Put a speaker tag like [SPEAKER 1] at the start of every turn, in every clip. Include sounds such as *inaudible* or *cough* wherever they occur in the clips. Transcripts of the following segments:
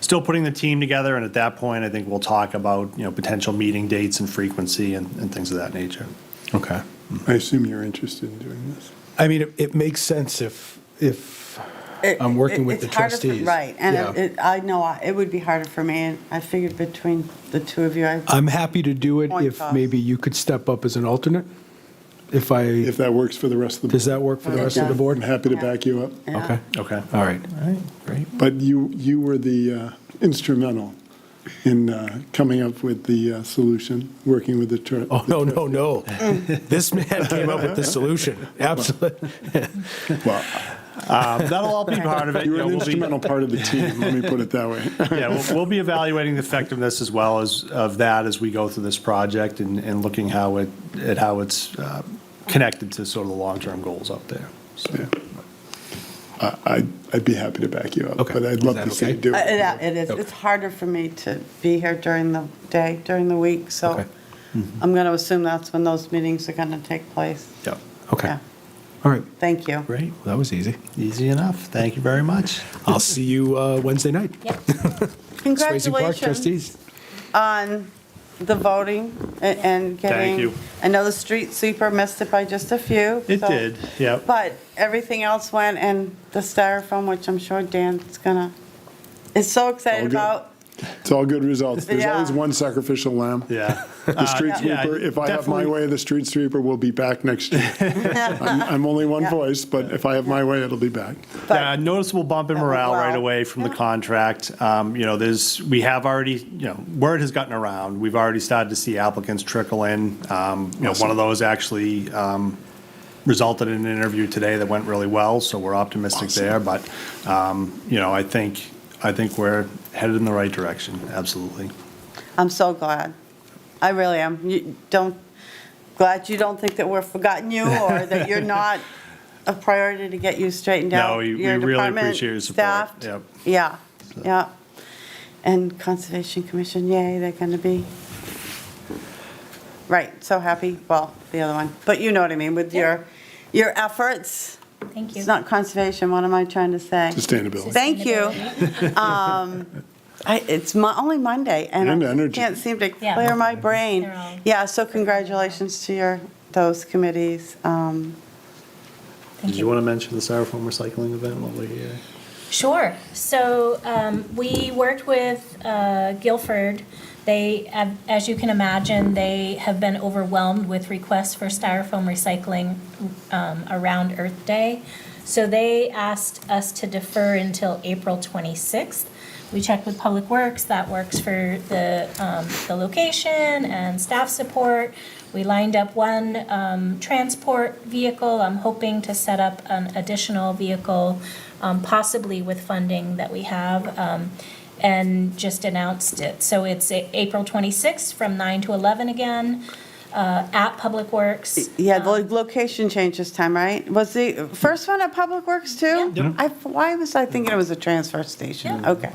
[SPEAKER 1] still putting the team together, and at that point, I think we'll talk about, you know, potential meeting dates and frequency and, and things of that nature.
[SPEAKER 2] Okay.
[SPEAKER 3] I assume you're interested in doing this.
[SPEAKER 2] I mean, it, it makes sense if, if
[SPEAKER 4] It-
[SPEAKER 2] I'm working
[SPEAKER 4] it-
[SPEAKER 2] with the
[SPEAKER 4] it's harder for-
[SPEAKER 2] trustees.
[SPEAKER 4] Right, and
[SPEAKER 2] Yeah.
[SPEAKER 4] it- it- I know, I- it would be harder for me, and I figured between the two of you, I,
[SPEAKER 2] I'm happy to do it
[SPEAKER 4] Point
[SPEAKER 2] if
[SPEAKER 4] cost.
[SPEAKER 2] maybe you could step up as an alternate. If I,
[SPEAKER 3] If that works for the rest of the.
[SPEAKER 2] does that work for the
[SPEAKER 4] It
[SPEAKER 2] rest of the
[SPEAKER 4] does.
[SPEAKER 3] I'm
[SPEAKER 2] board?
[SPEAKER 3] happy to
[SPEAKER 4] Yeah.
[SPEAKER 3] back you up.
[SPEAKER 4] yeah.
[SPEAKER 2] Okay,
[SPEAKER 1] Okay. Um,
[SPEAKER 2] all right. All right, great.
[SPEAKER 3] But you, you were the uh, instrumental in uh, coming up with the uh, solution, working with the church.
[SPEAKER 2] Oh, no, no, no. *laughs* This man came up with the solution. Absolutely.
[SPEAKER 3] Well,
[SPEAKER 1] Um, that'll all be part of it.
[SPEAKER 3] you were
[SPEAKER 1] know,
[SPEAKER 3] an
[SPEAKER 1] we'll be-
[SPEAKER 3] instrumental part of the team, let me put it that
[SPEAKER 1] *laughs*
[SPEAKER 3] way.
[SPEAKER 1] Yeah, we'll, we'll be evaluating the effectiveness as well as, of that as we go through this project and, and looking how it, at how it's uh, connected to sort of the long-term goals out there. So,
[SPEAKER 3] Yeah. I- I'd, I'd be happy to back you up,
[SPEAKER 2] Okay.
[SPEAKER 3] but I'd
[SPEAKER 2] Is
[SPEAKER 3] love
[SPEAKER 2] that
[SPEAKER 3] to see you
[SPEAKER 2] okay?
[SPEAKER 3] do
[SPEAKER 4] Uh,
[SPEAKER 3] it.
[SPEAKER 4] yeah, It is, it's harder for me to be here during the day, during the week, so
[SPEAKER 2] Okay. Mm-hmm.
[SPEAKER 4] I'm going to assume that's when those meetings are going to take place.
[SPEAKER 1] yeah,
[SPEAKER 2] Okay,
[SPEAKER 4] Yeah.
[SPEAKER 2] all right.
[SPEAKER 4] Thank you.
[SPEAKER 2] Great, well, that was easy.
[SPEAKER 1] easy enough. Thank you very much.
[SPEAKER 2] I'll see you uh, Wednesday night. Swayze Park
[SPEAKER 4] Congratulations
[SPEAKER 2] trustees.
[SPEAKER 4] on the voting a- and getting.
[SPEAKER 1] you.
[SPEAKER 4] I know the street sweeper missed it by just a few.
[SPEAKER 1] It
[SPEAKER 4] so-
[SPEAKER 1] did, yeah.
[SPEAKER 4] But everything else went, and the styrofoam, which I'm sure Dan's gonna, is so
[SPEAKER 3] All
[SPEAKER 1] Oh,
[SPEAKER 4] excited
[SPEAKER 3] good.
[SPEAKER 4] about.
[SPEAKER 3] It's all good results. There's
[SPEAKER 4] uh, Yeah.
[SPEAKER 3] always one sacrificial lamb.
[SPEAKER 1] Uh, Yeah.
[SPEAKER 3] The street sweeper, if I have my way, the street sweeper will be back next year. I'm I'm only one
[SPEAKER 4] Yeah.
[SPEAKER 3] voice, but if I have my way, it'll be back.
[SPEAKER 4] But-
[SPEAKER 1] Yeah, noticeable bump in
[SPEAKER 4] That went
[SPEAKER 1] morale right
[SPEAKER 4] well.
[SPEAKER 1] away from the
[SPEAKER 4] Yeah.
[SPEAKER 1] contract. Um, You know, there's, we have already, you know, word has gotten around. We've already started to see applicants trickle in. Um, You know, one of those actually um, resulted in an interview today that went really well, so we're optimistic there. But, um, you know, I think, I think we're headed in the right direction, absolutely.
[SPEAKER 4] I'm so glad. I really am. You don't, glad you don't think that we're forgotten you
[SPEAKER 1] *laughs*
[SPEAKER 4] or that you're not a priority to get you straightened out.
[SPEAKER 1] No, we- we
[SPEAKER 4] Your
[SPEAKER 1] really
[SPEAKER 4] department,
[SPEAKER 1] appreciate your support.
[SPEAKER 4] staffed.
[SPEAKER 1] Yep.
[SPEAKER 4] Yeah, yeah. And Conservation Commission, yay, they're going to be, right, so happy, well, the other one. But you know what I mean, with your, your efforts.
[SPEAKER 5] Thank you.
[SPEAKER 4] It's not conservation, what am I trying to say?
[SPEAKER 3] Sustainability.
[SPEAKER 4] Thank you. I, it's my, only Monday, and
[SPEAKER 3] And
[SPEAKER 4] I
[SPEAKER 3] energy.
[SPEAKER 4] can't seem to
[SPEAKER 5] Yeah.
[SPEAKER 4] clear my brain.
[SPEAKER 5] They're all-
[SPEAKER 4] Yeah, so congratulations to your, those committees. Um,
[SPEAKER 1] Did you want to mention the Styrofoam recycling event while we're here?
[SPEAKER 5] Sure. So um, we worked with uh, Guilford. They, ab- as you can imagine, they have been overwhelmed with requests for styrofoam recycling um, around Earth Day. So they asked us to defer until April 26th. We checked with Public Works. That works for the um, the location and staff support. We lined up one um, transport vehicle. I'm hoping to set up an additional vehicle um, possibly with funding that we have, um, and just announced it. So it's A- April 26th from 9 to 11 again, uh, at Public Works.
[SPEAKER 4] Yeah, the
[SPEAKER 5] Um,
[SPEAKER 4] location change this time, right? Was the first one at Public Works too?
[SPEAKER 5] Yeah.
[SPEAKER 4] I, why was I thinking it was a transfer station?
[SPEAKER 5] Yeah.
[SPEAKER 4] Okay.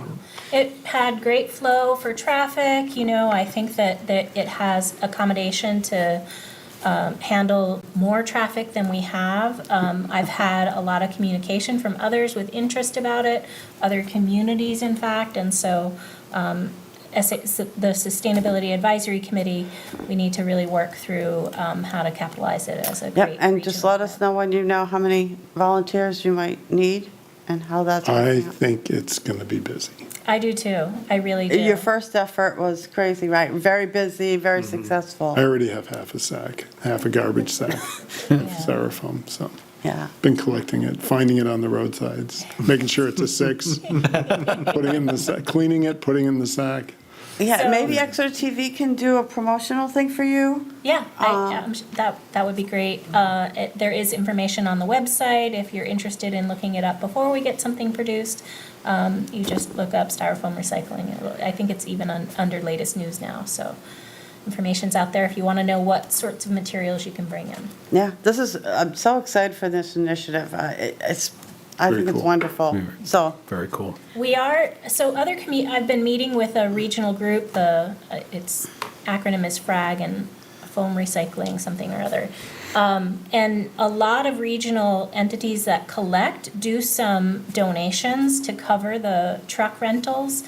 [SPEAKER 5] It had great flow for traffic, you know, I think that, that it has accommodation to um, handle more traffic than we have. Um, I've had a lot of communication from others with interest about it, other communities in fact, and so um, as it's the Sustainability Advisory Committee, we need to really work through um, how to capitalize it as a
[SPEAKER 4] Yep,
[SPEAKER 5] great.
[SPEAKER 4] and just
[SPEAKER 5] regional
[SPEAKER 4] let us
[SPEAKER 5] event.
[SPEAKER 4] know when you know how many volunteers you might need and how that's.
[SPEAKER 3] I
[SPEAKER 4] working out.
[SPEAKER 3] think it's going to be busy.
[SPEAKER 5] I do too, I really do.
[SPEAKER 4] Your first effort was crazy, right? Very busy, very
[SPEAKER 3] Mm-hmm. I
[SPEAKER 4] successful.
[SPEAKER 3] already have half a sack, half a garbage sack of
[SPEAKER 5] Yeah.
[SPEAKER 3] styrofoam, so
[SPEAKER 4] Yeah.
[SPEAKER 3] been collecting it, finding it on the roadsides, making sure it's a six, putting it in the sack, cleaning it, putting it in the sack.
[SPEAKER 4] Yeah,
[SPEAKER 5] So-
[SPEAKER 4] maybe Exeter TV can do a promotional thing for you.
[SPEAKER 5] Yeah, I, I'm s- that that would be great. Uh, it, there is information on the website if you're interested in looking it up before we get something produced. Um, you just look up styrofoam recycling. It'll- I think it's even on, under latest news now. So information's out there if you want to know what sorts of materials you can bring in.
[SPEAKER 4] Yeah, this is, I'm so excited for this initiative. Uh, it- It's, I
[SPEAKER 3] Very
[SPEAKER 4] think it's
[SPEAKER 3] cool.
[SPEAKER 4] wonderful. So,
[SPEAKER 2] Very cool.
[SPEAKER 5] We are, so other commu, I've been meeting with a regional group, the, uh, its acronym is FRAG and Foam Recycling, something or other. Um, and a lot of regional entities that collect do some donations to cover the truck rentals.